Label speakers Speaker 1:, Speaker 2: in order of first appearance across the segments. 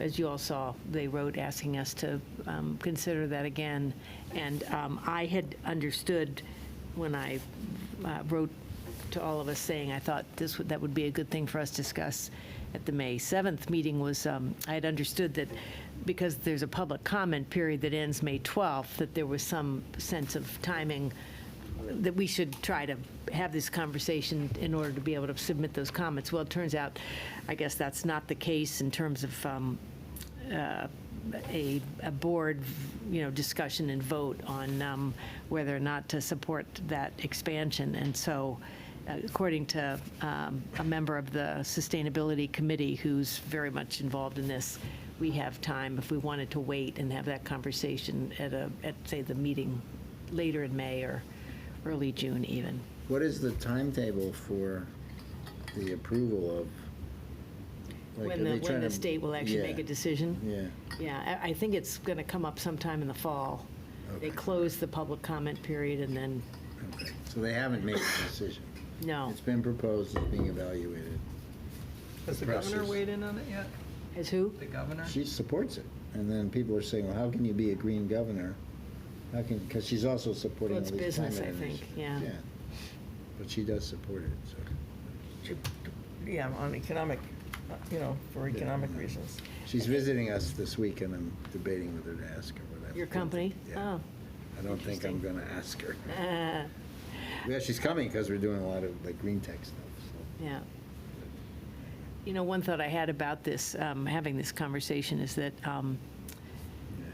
Speaker 1: as you all saw, they wrote asking us to um, consider that again. And um, I had understood when I uh, wrote to all of us saying I thought this would, that would be a good thing for us to discuss at the May 7th meeting was, um, I had understood that because there's a public comment period that ends May 12th, that there was some sense of timing that we should try to have this conversation in order to be able to submit those comments. Well, it turns out, I guess that's not the case in terms of um, uh, a, a board, you know, discussion and vote on um, whether or not to support that expansion. And so, uh, according to um, a member of the Sustainability Committee who's very much involved in this, we have time if we wanted to wait and have that conversation at a, at, say, the meeting later in May or early June even.
Speaker 2: What is the timetable for the approval of? like, are
Speaker 1: When the,
Speaker 2: they
Speaker 1: when
Speaker 2: trying
Speaker 1: the
Speaker 2: to-
Speaker 1: state will actually
Speaker 2: yeah,
Speaker 1: make a decision.
Speaker 2: Yeah,
Speaker 1: Yeah, I, I think it's going to come up sometime in the fall. They
Speaker 2: Okay.
Speaker 1: close the public comment period and then,
Speaker 2: okay. So they haven't made a decision.
Speaker 1: no.
Speaker 2: It's been proposed, it's being evaluated.
Speaker 3: Has the
Speaker 2: Progressive.
Speaker 3: governor weighed in on it yet?
Speaker 1: As who?
Speaker 3: The governor?
Speaker 2: She supports it. And then people are saying, well, how can you be a green governor? How can, because she's also supporting all
Speaker 1: Well, it's
Speaker 2: these climate
Speaker 1: business, I think,
Speaker 2: initiatives.
Speaker 1: yeah.
Speaker 2: But she does support it, so.
Speaker 3: Yeah, on economic, uh, you know, for economic reasons.
Speaker 2: She's visiting us this week and I'm debating whether to ask her, but I.
Speaker 1: Your
Speaker 2: don't
Speaker 1: company? Oh,
Speaker 2: think- Yeah. I don't think I'm
Speaker 1: interesting.
Speaker 2: going to ask her.
Speaker 1: Oh, uh,
Speaker 2: Yeah, she's coming because we're doing a lot of like green tech stuff, so.
Speaker 1: yeah. You know, one thought I had about this, um, having this conversation, is that um,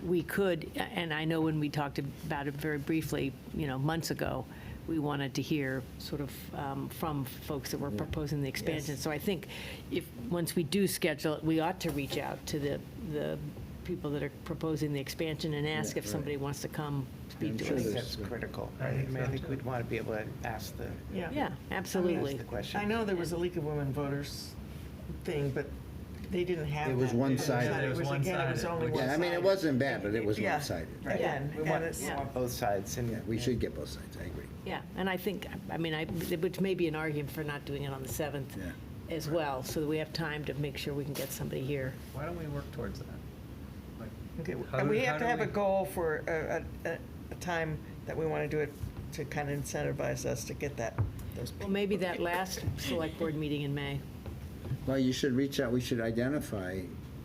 Speaker 1: we could, and I know when we talked about it very briefly, you know, months ago, we wanted to hear sort of um, from folks that were proposing the expansion. So I think if, once we do schedule it, we ought to reach out to the, the people that are proposing the expansion and ask
Speaker 2: Yeah,
Speaker 1: if somebody
Speaker 2: right.
Speaker 1: wants to come
Speaker 2: I'm
Speaker 1: speak
Speaker 2: sure
Speaker 4: I
Speaker 1: to
Speaker 4: think
Speaker 2: there's-
Speaker 1: us.
Speaker 4: that's critical. I think- I mean, I think we'd want to be able to ask the,
Speaker 1: Yeah,
Speaker 4: ask
Speaker 1: absolutely.
Speaker 4: the question.
Speaker 5: I know there was a League of Women Voters thing, but they didn't have
Speaker 2: It was
Speaker 5: that.
Speaker 2: one-sided.
Speaker 5: It was, again, it was only
Speaker 3: Yeah,
Speaker 5: one-sided.
Speaker 2: Yeah, I mean, it wasn't bad, but it was
Speaker 5: Yeah.
Speaker 2: one-sided.
Speaker 4: Right.
Speaker 5: Again,
Speaker 4: We
Speaker 5: and
Speaker 4: want,
Speaker 5: it's,
Speaker 4: we want both sides and.
Speaker 2: Yeah, we should get both sides, I agree.
Speaker 1: Yeah, and I think, I mean, I, which may be an argument for not doing it on the 7th
Speaker 2: Yeah.
Speaker 1: as well, so that we have time to make sure we can get somebody here.
Speaker 3: Why don't we work towards that? Like,
Speaker 5: okay,
Speaker 3: How
Speaker 5: and
Speaker 3: do-
Speaker 5: we
Speaker 3: how
Speaker 5: have to
Speaker 3: do
Speaker 5: have a
Speaker 3: we-
Speaker 5: goal for a, a, a- a time that we want to do it to kind of incentivize us to get that, those
Speaker 1: Well,
Speaker 5: people.
Speaker 1: maybe that last select board meeting in May.
Speaker 2: Well, you should reach out, we should identify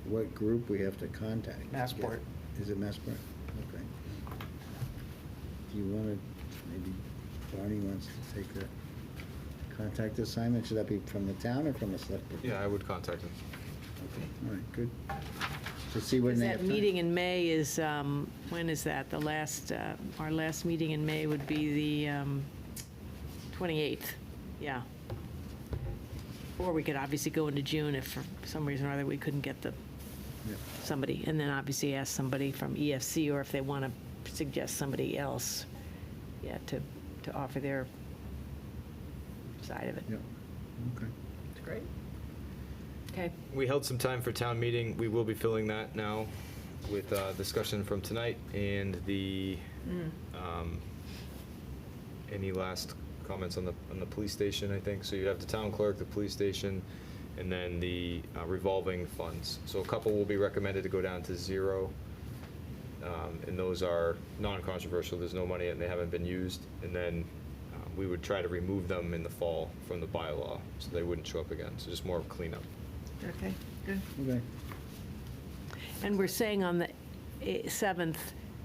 Speaker 2: what group we have to contact.
Speaker 4: Massport.
Speaker 2: Is it Massport? Okay. Do you want to, maybe Barney wants to take the contact assignment, should that be from the town or from the select board?
Speaker 6: Yeah, I would contact him.
Speaker 2: Okay, all right, good. So see when
Speaker 1: Because
Speaker 2: they have
Speaker 1: that
Speaker 2: time.
Speaker 1: meeting in May is, um, when is that? The last, uh, our last meeting in May would be the um, 28th, yeah. Or we could obviously go into June if for some reason or other we couldn't get the,
Speaker 2: Yep.
Speaker 1: somebody. And then obviously ask somebody from EFC or if they want to suggest somebody else, yeah, to, to offer their side of it.
Speaker 2: Yep, okay.
Speaker 3: It's great.
Speaker 1: Okay,
Speaker 6: We held some time for town meeting. We will be filling that now with uh, discussion from tonight and the, um, any last comments on the, on the police station, I think. So you have the town clerk, the police station, and then the uh, revolving funds. So a couple will be recommended to go down to zero. Um, And those are non-controversial. There's no money and they haven't been used. And then uh, we would try to remove them in the fall from the bylaw, so they wouldn't show up again. So just more of cleanup.
Speaker 5: Okay, good.
Speaker 2: Okay.
Speaker 1: and we're saying on the eh, 7th,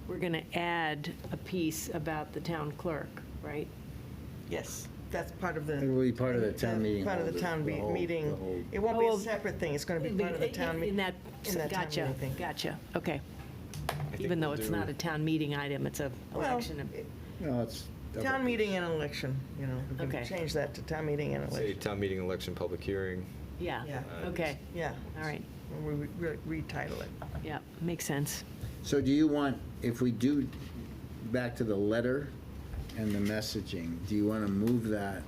Speaker 1: we're going to add a piece about the town clerk, right?
Speaker 5: Yes, that's part of the.
Speaker 2: It will be part of the town meeting
Speaker 5: Part of
Speaker 2: hall,
Speaker 5: the
Speaker 2: the-
Speaker 5: town
Speaker 2: the
Speaker 5: be-
Speaker 2: whole- the whole-
Speaker 5: meeting. It won't be
Speaker 1: Oh,
Speaker 5: a separate thing, it's going to be part of the town.
Speaker 1: In
Speaker 5: meeting.
Speaker 1: that,
Speaker 5: in that town
Speaker 1: gotcha,
Speaker 5: meeting thing.
Speaker 1: gotcha, okay.
Speaker 6: I think
Speaker 1: Even though
Speaker 6: we'll
Speaker 1: it's
Speaker 6: do-
Speaker 1: not a town meeting item, it's a election. of-
Speaker 2: No, it's.
Speaker 5: Town meeting and election, you know, we
Speaker 1: Okay.
Speaker 5: can change that to town meeting and
Speaker 6: Say
Speaker 5: election.
Speaker 6: town meeting, election, public hearing.
Speaker 1: Yeah,
Speaker 5: Yeah.
Speaker 1: okay,
Speaker 5: Yeah,
Speaker 6: Uh,
Speaker 1: all right,
Speaker 5: we re- re- retitle it.
Speaker 1: yeah, makes sense.
Speaker 2: So do you want, if we do, back to the letter and the messaging, do you want to move that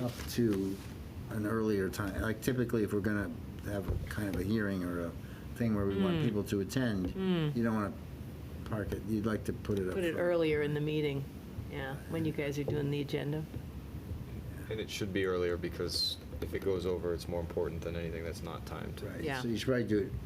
Speaker 2: up to an earlier time? Like typically, if we're going to have a kind of a hearing or a thing where we
Speaker 1: Hmm.
Speaker 2: want people to attend, you don't want to park it, you'd like to put it up.
Speaker 1: Put it
Speaker 2: front.
Speaker 1: earlier in the meeting, yeah, when you guys are doing the agenda.
Speaker 6: And it should be earlier because if it goes over, it's more important than anything that's not timed.
Speaker 2: Right,
Speaker 1: Yeah.
Speaker 2: so you should probably do it